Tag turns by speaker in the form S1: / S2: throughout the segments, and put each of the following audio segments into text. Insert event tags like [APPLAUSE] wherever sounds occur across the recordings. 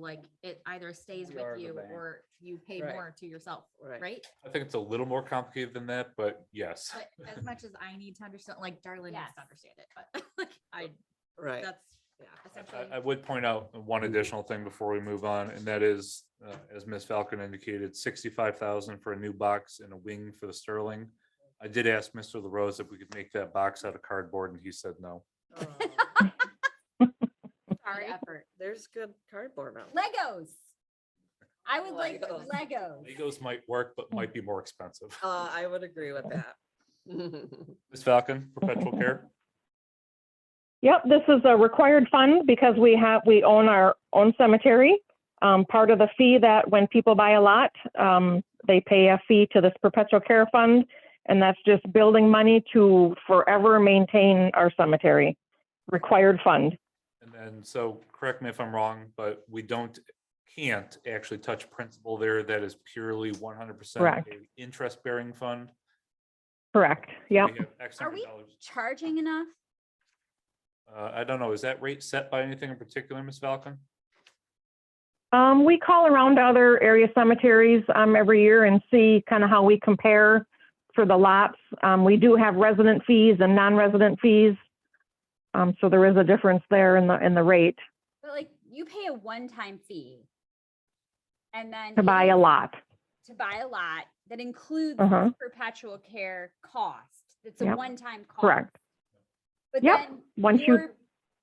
S1: like it either stays
S2: We are
S1: with
S2: the
S1: you
S2: bank.
S1: or you pay
S3: Right.
S1: more to yourself,
S3: Right.
S1: right?
S4: I think it's a little more complicated than that, but yes.
S1: But as much as I need to understand, like Darlene needs
S5: Yes.
S1: to understand it, but [LAUGHS] like I,
S3: Right.
S5: [LAUGHS]
S1: that's, yeah, essentially.
S4: I, I would point out one
S6: Mm-hmm.
S4: additional thing before we move on, and that is, uh, as Ms. Falcon indicated, sixty-five thousand for a new box and a wing for the Sterling. I did ask Mr. LaRose if we could make that box out of cardboard, and he said no.
S3: Oh,
S1: Sorry.
S3: There's good cardboard out. there.
S5: Legos. I would like
S3: Legos.
S5: Legos.
S4: Legos might work, but might be more expensive.
S5: Oh.
S3: Uh, I would agree
S5: [LAUGHS]
S3: with that.
S4: Ms. Falcon, perpetual care,
S6: Yep, this is a required fund because we have, we own our own cemetery. Um, part of the fee that when people buy a lot, um, they pay a fee to this perpetual care fund. And that's just building money to forever maintain our cemetery. Required fund.
S4: and then, so, correct me if I'm wrong, but we don't, can't actually touch principal there, that is purely one hundred percent
S6: Correct.
S4: interest-bearing fund.
S6: Correct. Yep.
S4: We have X
S5: Are
S4: number of
S5: we-
S4: dollars.
S5: Charging enough?
S4: Uh, I don't know, is that rate set by anything in particular, Ms. Falcon?
S6: Um, we call around other area cemeteries, um, every year and see kind of how we compare for the lots. Um, we do have resident fees and non-resident fees. Um, so there is a difference there in the, in the rate
S5: But like you pay a one-time fee. And then.
S6: to buy a
S5: it-
S6: lot.
S5: To buy a lot that includes
S6: Uh-huh.
S5: this perpetual care cost. It's a
S6: Yep.
S5: one-time cost.
S6: Correct.
S5: But
S6: Yep.
S5: then
S6: Once you-
S5: your-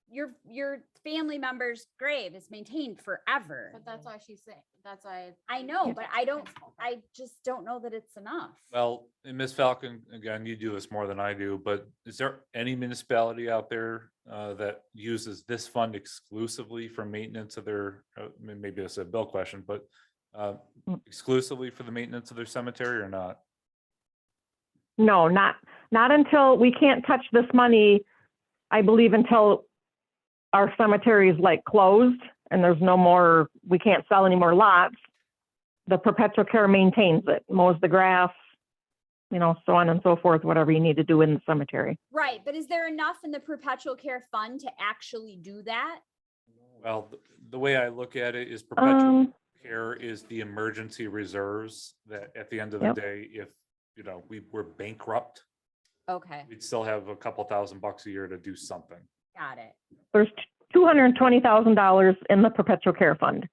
S5: Your, your family member's grave is maintained forever.
S1: But that's why she's saying, that's why.
S5: I know, but I don't, I just don't know that it's enough.
S4: Well, and Ms. Falcon, again, you do this more than I do, but is there any municipality out there uh, that uses this fund exclusively for maintenance of their, uh, may- maybe that's a bill question, but uh,
S6: Mm.
S4: exclusively for the maintenance of their cemetery or not?
S6: No, not, not until, we can't touch this money, I believe until our cemetery is like closed and there's no more, we can't sell any more lots. The perpetual care maintains it, mows the grass, you know, so on and so forth, whatever you need to do in the cemetery.
S5: Right, but is there enough in the perpetual care fund to actually do that?
S4: Well, th- the way I look at it is perpetual
S6: Um,
S4: care is the emergency reserves that at the end of the
S6: Yep.
S4: day, if, you know, we were bankrupt,
S5: Okay,
S4: we'd still have a couple thousand bucks a year to do something.
S5: got it.
S6: there's two hundred and twenty thousand dollars in the perpetual care fund.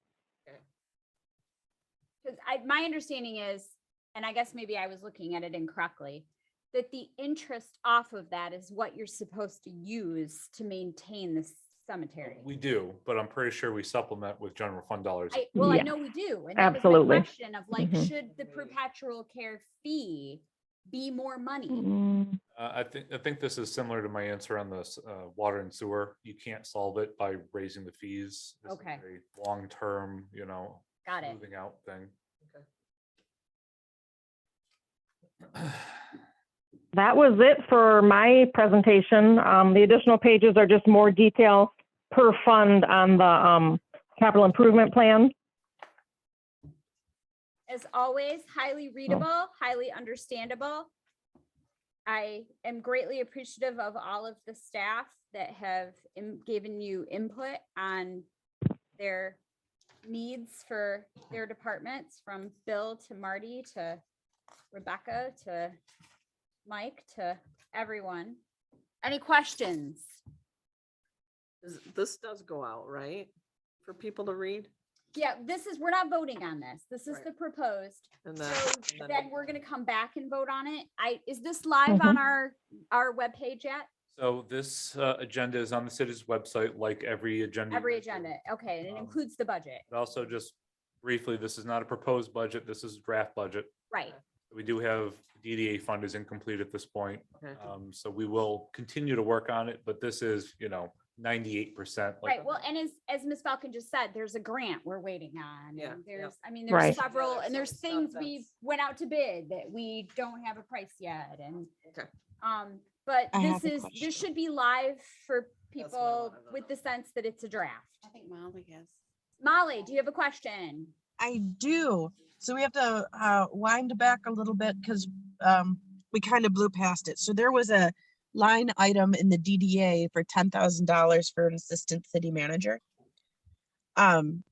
S5: Because I, my understanding is, and I guess maybe I was looking at it incorrectly, that the interest off of that is what you're supposed to use to maintain the cemetery.
S4: We do, but I'm pretty sure we supplement with general fund dollars.
S5: I, well, I
S6: Yes.
S5: know we do. and that was my
S6: Absolutely.
S5: Question of like,
S6: Mhm.
S5: should the perpetual care fee be more money?
S6: Mm,
S4: Uh, I think, I think this is similar to my answer on this, uh, water and sewer. You can't solve it by raising the fees. This is
S5: Okay.
S4: a Long-term, you know,
S5: Got it.
S4: moving out thing.
S6: That was it for my presentation. Um, the additional pages are just more detail per fund on the, um, capital improvement plan.
S5: as always, highly readable, highly understandable. I am greatly appreciative of all of the staff that have im- given you input on their needs for their departments, from Bill to Marty to Rebecca to Mike to everyone. Any questions?
S3: Is- This does go out, right? For people to read
S5: Yeah, this is, we're not voting on this. This is
S3: Right.
S5: the proposed.
S3: and then.
S5: So
S3: and
S5: then we're gonna come back and vote on it. I, is this live
S7: Mm-hmm.
S5: on our, our webpage yet?
S4: [CLEARS THROAT] So this, uh, agenda is on the city's website, like every agenda.
S5: Every
S4: you guys do.
S5: agenda, okay, and it
S4: Um,
S5: includes the budget,
S4: And Also, just briefly, this is not a proposed budget. This is draft budget.
S5: right?
S4: We do have DDA fund is incomplete at this point.
S3: Okay.
S4: Um, so we will continue to work on it, but this is, you know, ninety-eight percent.
S5: Right, well, and as, as Ms. Falcon just said, there's a grant we're waiting on.
S3: Yeah,
S5: and
S3: yeah.
S5: There's, I mean,
S6: Right.
S5: there's
S3: Yeah,
S5: several,
S3: there's
S5: and
S3: some
S5: there's
S3: stuff
S5: things we
S3: that's-
S5: went out to bid that we don't have a price yet and.
S3: Okay.
S5: Um, but
S7: I
S5: this
S7: have a
S5: is,
S7: question.
S5: this should be live for
S3: what I
S5: people
S3: wanna know.
S5: with the sense that it's a draft.
S7: I think Molly has.
S5: Molly, do you have a question?
S7: I do. So we have to uh, wind back a little bit because um, we kind of blew past it. So there was a line item in the DDA for ten thousand dollars for an assistant city manager. Um,